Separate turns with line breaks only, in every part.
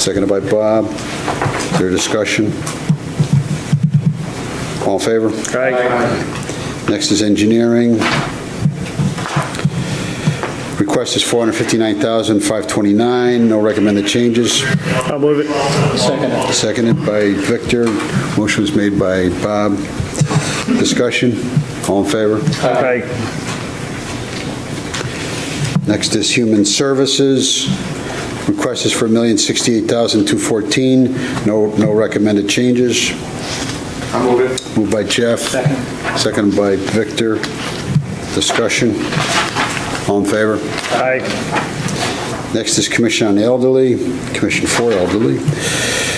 seconded by Bob. Is there discussion? All in favor? Next is engineering. Request is 459529 no recommended changes.
I'll move it. Second.
Seconded by Victor. Motion was made by Bob. Discussion? All in favor?
Aye.
Next is human services. Request is for $1,068,214, no, no recommended changes.
I'll move it.
Moved by Jeff.
Second.
Seconded by Victor. Discussion? All in favor?
Aye.
Next is Commission on Elderly, Commission for Elderly.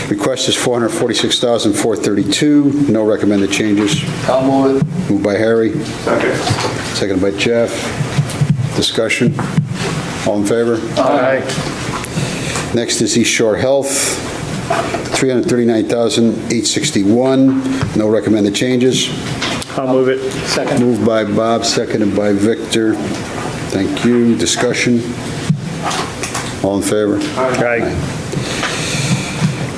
Request is 446432 no recommended changes.
I'll move it.
Moved by Harry,
Second.
seconded by Jeff. Discussion? All in favor?
Aye.
Next is East Shore Health, 339861 no recommended changes.
I'll move it. Second.
Moved by Bob, seconded by Victor. Thank you. Discussion? All in favor?
Aye.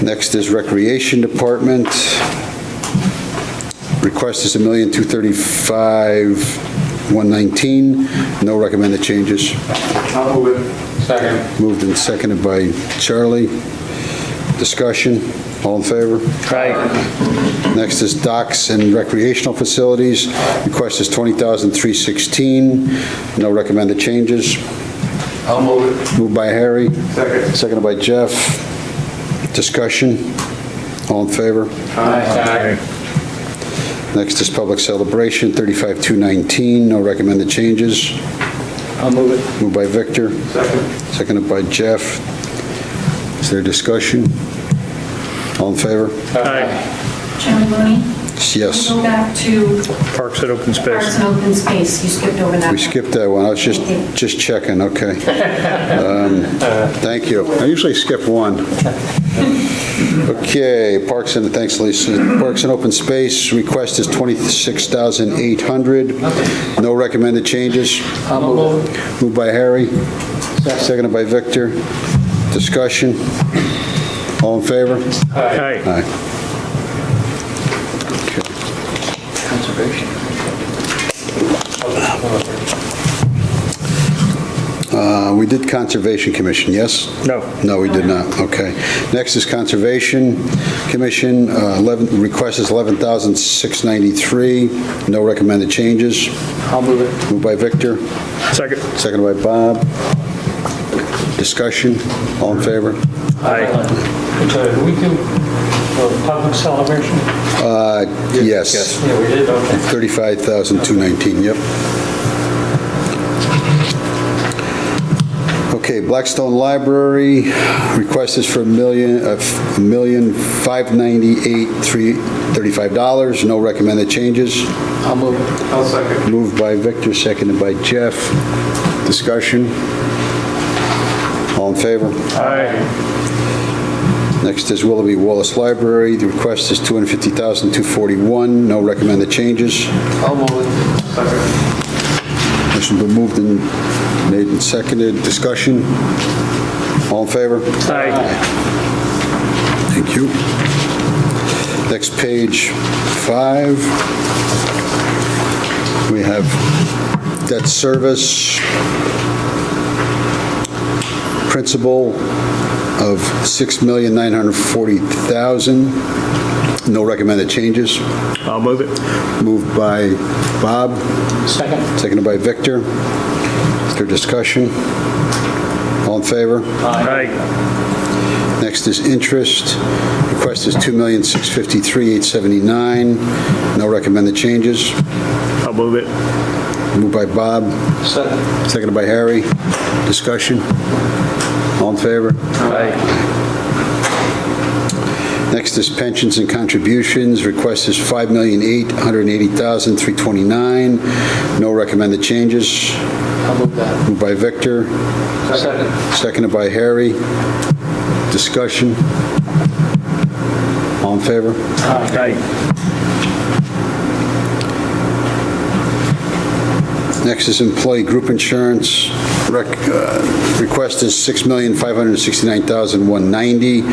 Next is Recreation Department. Request is $1,235,119. No recommended changes.
I'll move it. Second.
Moved and seconded by Charlie. Discussion. All in favor?
Aye.
Next is Docks and Recreational Facilities. Request is $20,316. No recommended changes.
I'll move it.
Moved by Harry,
Second.
seconded by Jeff. Discussion. All in favor?
Aye.
Next is public celebration, 35219, no recommended changes.
I'll move it.
Moved by Victor,
Second.
seconded by Jeff. Is there discussion? All in favor?
Aye.
Chairman Looney?
Yes.
We Go back to
Parks and open
Parks
space.
and Open Space. You skipped over that.
We skipped that one, I was just, just checking, okay. Um, Thank you. I usually skip one. Okay, Parks and, thanks Lisa. Parks and Open Space, request is 26,800. No recommended changes.
I'll move it.
Moved by Harry, seconded by Victor. Discussion? All in favor?
Aye.
Aye.
Conservation.
Uh, We did Conservation Commission, yes?
No.
No, we did not, okay. Next is Conservation Commission, uh, 11, request is 11,693. No recommended changes.
I'll move it.
Moved by Victor,
Second.
seconded by Bob. Discussion? All in favor?
Aye.
So do we do a public celebration?
Uh, Yes.
Yeah, we did, okay.
35,219, yep. Okay, Blackstone Library, request is for a million, uh, f- a million five ninety-eight three thirty-five dollars no recommended changes.
I'll move it. I'll second.
Moved by Victor, seconded by Jeff. Discussion? All in favor?
Aye.
Next is Willoughby Wallace Library, the request is 250241 no recommended changes.
I'll move it. Second.
Motion been moved and made and seconded. Discussion? All in favor?
Aye.
Thank you. Next page, five. We have debt service, principal of $6,940,000. No recommended changes.
I'll move it.
Moved by Bob.
Second?
Seconded by Victor. Is there discussion? All in favor?
Aye.
Next is interest. Request is $2,653,879. No recommended changes.
I'll move it.
Moved by Bob,
Second.
seconded by Harry. Discussion? All in favor?
Aye.
Next is pensions and contributions. Request is $5,880,329. No recommended changes.
I'll move that.
Moved by Victor,
Second.
Seconded by Harry. Discussion? All in favor?
Aye.
Next is employee group insurance. Rec- uh, Request is $6,569,190.